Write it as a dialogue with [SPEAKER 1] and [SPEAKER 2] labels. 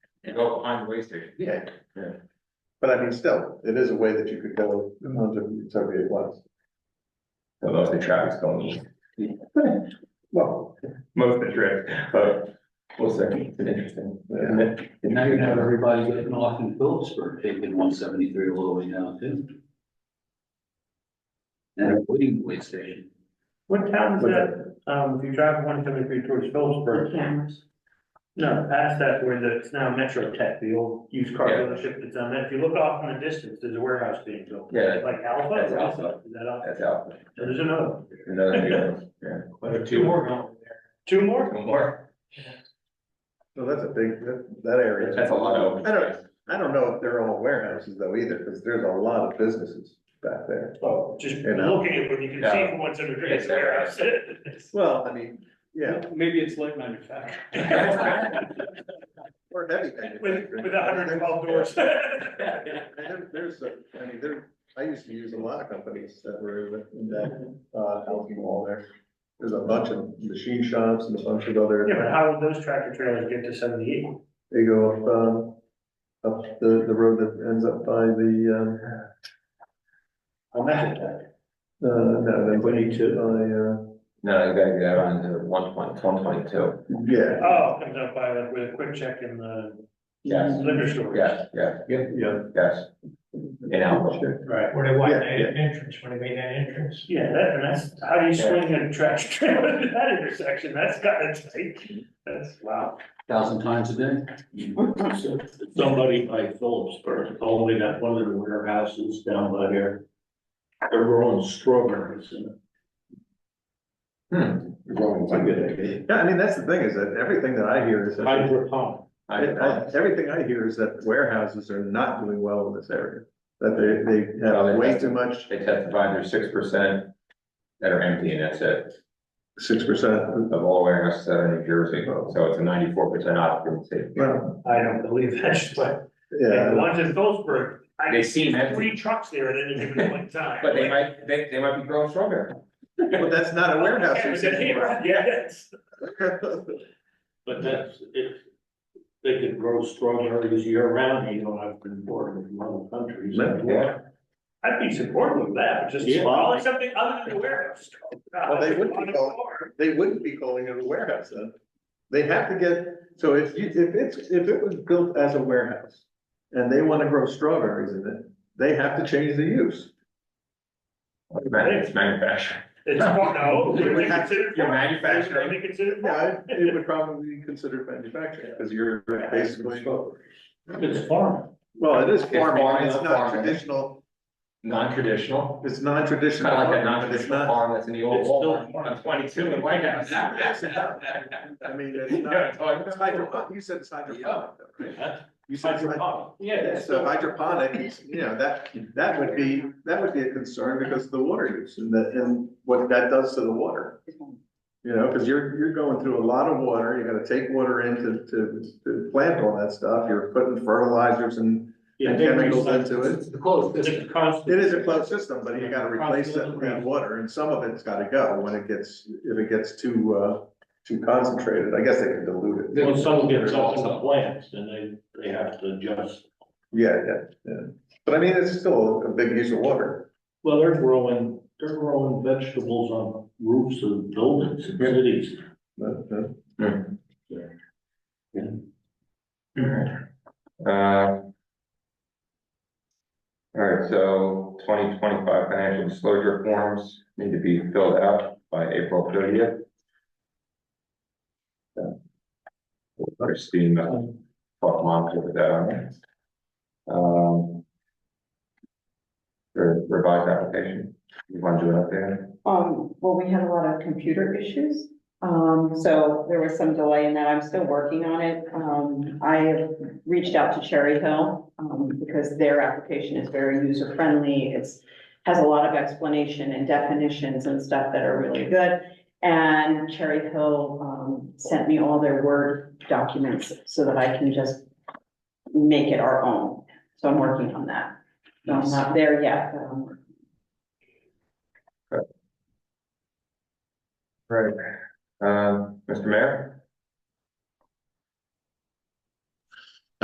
[SPEAKER 1] You go behind the way station.
[SPEAKER 2] Yeah.
[SPEAKER 1] Yeah.
[SPEAKER 2] But I mean, still, it is a way that you could go onto Soviet West.
[SPEAKER 1] Most of the traffic's going east,
[SPEAKER 2] Well,
[SPEAKER 1] most of the trip, but we'll see, it's interesting.
[SPEAKER 2] Yeah.
[SPEAKER 3] And now you have everybody getting off in Phillipsburg, taking one seventy-three all the way down too. And a waiting police station.
[SPEAKER 4] What town is
[SPEAKER 2] What
[SPEAKER 4] that, um, if you drive one seventy-three towards Phillipsburg?
[SPEAKER 5] cameras.
[SPEAKER 4] No, past that where the, it's now Metro Tech, the old used car
[SPEAKER 1] Yeah.
[SPEAKER 4] dealership that's on that, if you look off in the distance, there's a warehouse being built.
[SPEAKER 1] Yeah,
[SPEAKER 4] Like Alpha?
[SPEAKER 1] That's
[SPEAKER 4] or
[SPEAKER 1] Alpha.
[SPEAKER 4] Is that Alpha?
[SPEAKER 1] that's out,
[SPEAKER 4] And There's another. one.
[SPEAKER 1] another new one, yeah.
[SPEAKER 4] Two more going there. Two more?
[SPEAKER 1] One more,
[SPEAKER 2] so that's a big, that, that area.
[SPEAKER 1] that's a lot of.
[SPEAKER 2] I don't, I don't know if they're all warehouses though either, because there's a lot of businesses back there.
[SPEAKER 4] Oh, just
[SPEAKER 2] You know.
[SPEAKER 4] looking at when you can
[SPEAKER 1] Yeah.
[SPEAKER 4] see from one seventy-three, it's a
[SPEAKER 1] Yeah.
[SPEAKER 4] warehouse.
[SPEAKER 2] Well, I mean, yeah,
[SPEAKER 4] Maybe it's light manufacturing.
[SPEAKER 2] or heavy manufacturing.
[SPEAKER 4] With, with hundred and twelve doors.
[SPEAKER 2] And there- There's, a- I mean, there, I used to use a lot of companies that were in that, uh, housing wall there. There's a bunch of machine shops and a bunch of other.
[SPEAKER 4] Yeah, but how would those tractor trailers get to seventy-eight? Oh,
[SPEAKER 2] They go up, um, up the, the road that ends up by the,
[SPEAKER 4] On that attack.
[SPEAKER 2] um, uh, no, the. Twenty-two. By,
[SPEAKER 1] No, you gotta get out onto one point, one twenty-two,
[SPEAKER 2] uh, yeah,
[SPEAKER 4] Oh, comes up by like with a quick check in the
[SPEAKER 1] yes,
[SPEAKER 4] liquor store.
[SPEAKER 1] yes, yes,
[SPEAKER 2] yeah.
[SPEAKER 1] yes, in Alpha.
[SPEAKER 2] Sure.
[SPEAKER 4] Right,
[SPEAKER 6] Where they want
[SPEAKER 2] Yeah,
[SPEAKER 6] that
[SPEAKER 2] yeah.
[SPEAKER 6] entrance, when they made that entrance.
[SPEAKER 4] yeah, that, and that's, how do you swing a tractor trailer at that intersection? That's gotta take, that's, wow.
[SPEAKER 3] Thousand times a day.
[SPEAKER 7] somebody by Phillipsburg, all the way down one of the warehouses down by here. They're growing strawberries in it.
[SPEAKER 1] Hmm.
[SPEAKER 7] Growing. It's a good idea.
[SPEAKER 2] Yeah, I mean, that's the thing is that everything that I hear is, that-
[SPEAKER 7] Hydroponic.
[SPEAKER 1] I-
[SPEAKER 2] I- I- everything I hear is that warehouses are not doing well in this area. That they, they
[SPEAKER 1] No,
[SPEAKER 2] have
[SPEAKER 1] they
[SPEAKER 2] way
[SPEAKER 1] just-
[SPEAKER 2] too much,
[SPEAKER 1] They testified there's six percent that are empty and that's it,
[SPEAKER 2] six percent,
[SPEAKER 1] of all warehouses that are in New Jersey, so it's a ninety-four percent occupancy.
[SPEAKER 2] well,
[SPEAKER 4] I don't believe that's what, and the
[SPEAKER 2] yeah.
[SPEAKER 4] ones in Phillipsburg, I
[SPEAKER 1] They
[SPEAKER 4] can
[SPEAKER 1] seem
[SPEAKER 4] see
[SPEAKER 1] empty.
[SPEAKER 4] three trucks there at any given point in time.
[SPEAKER 1] But they might, they, they might be growing strawberry.
[SPEAKER 2] But that's not a warehouse.
[SPEAKER 4] Yeah,
[SPEAKER 2] it's-
[SPEAKER 4] Yes.
[SPEAKER 7] But that's, if they could grow strawberries year round, you don't have to import them from other countries.
[SPEAKER 1] Yeah.
[SPEAKER 4] I'd be supportive of that, but just
[SPEAKER 7] Yeah.
[SPEAKER 4] call it something other than the warehouse.
[SPEAKER 2] Well, they would be
[SPEAKER 4] On the
[SPEAKER 2] called-
[SPEAKER 4] farm.
[SPEAKER 2] they wouldn't be calling it a warehouse then. They have to get, so if you, if it's, if it was built as a warehouse and they wanna grow strawberries in it, they have to change the use.
[SPEAKER 1] It's manufacturing.
[SPEAKER 4] It's, no,
[SPEAKER 2] You
[SPEAKER 4] they
[SPEAKER 2] would have-
[SPEAKER 4] consider.
[SPEAKER 1] You're manufacturing.
[SPEAKER 4] They consider.
[SPEAKER 2] Yeah, it would probably be considered manufacturing, cause you're basically,
[SPEAKER 7] It's farming.
[SPEAKER 2] well, it is
[SPEAKER 1] It's
[SPEAKER 2] farming,
[SPEAKER 1] farming,
[SPEAKER 2] it's
[SPEAKER 1] it's
[SPEAKER 2] not
[SPEAKER 1] farming.
[SPEAKER 2] traditional,
[SPEAKER 1] Non-traditional,
[SPEAKER 2] it's
[SPEAKER 1] it's
[SPEAKER 2] non-traditional.
[SPEAKER 1] kind of like that
[SPEAKER 2] farming, but it's
[SPEAKER 1] non-traditional
[SPEAKER 2] not-
[SPEAKER 1] farm that's in the old
[SPEAKER 7] It's still
[SPEAKER 1] Walmart on twenty-two in White House.
[SPEAKER 2] I mean, it's
[SPEAKER 1] You know what I'm
[SPEAKER 2] not,
[SPEAKER 1] talking
[SPEAKER 2] it's
[SPEAKER 1] about?
[SPEAKER 2] hydroponic, you said it's hydroponic, though, right? You said it's hydroponic.
[SPEAKER 7] Hydroponic.
[SPEAKER 2] Yeah, so hydroponics, you know, that, that would be, that would be a concern because of the water use and the, and what that does to the water. You know, because you're, you're going through a lot of water, you gotta take water in to, to, to plant all that stuff, you're putting fertilizers and
[SPEAKER 7] Yeah, they
[SPEAKER 2] chemicals
[SPEAKER 7] recycle.
[SPEAKER 2] into it.
[SPEAKER 3] The close
[SPEAKER 7] It's
[SPEAKER 3] business.
[SPEAKER 7] a constant.
[SPEAKER 2] It is a closed system, but you gotta replace that clean water and some of it's gotta go when it gets, if it gets too, uh, too concentrated, I guess they can dilute it.
[SPEAKER 7] When someone gets up in the plants, then they, they have to adjust.
[SPEAKER 2] Yeah, yeah, yeah. But I mean, it's still a big use of water.
[SPEAKER 7] Well, they're growing, they're growing vegetables on roofs of buildings in cities.
[SPEAKER 2] but, uh,
[SPEAKER 1] Uh, All right, so twenty twenty-five financial disclosure forms need to be filled out by April thirtieth. Christine, uh, fuck mom, put that on there. Um, re- Revised application, you want to do it up there?
[SPEAKER 5] Um, well, we had a lot of computer issues, um, so there was some delay in that. I'm still working on it. Um, I have reached out to Cherry Hill, um, because their application is very user friendly. It's, has a lot of explanation and definitions and stuff that are really good. And Cherry Hill, um, sent me all their Word documents so that I can just make it our own. So I'm working on that. So I'm not there yet, but I'm
[SPEAKER 1] Right. Um, Mr. Mayor?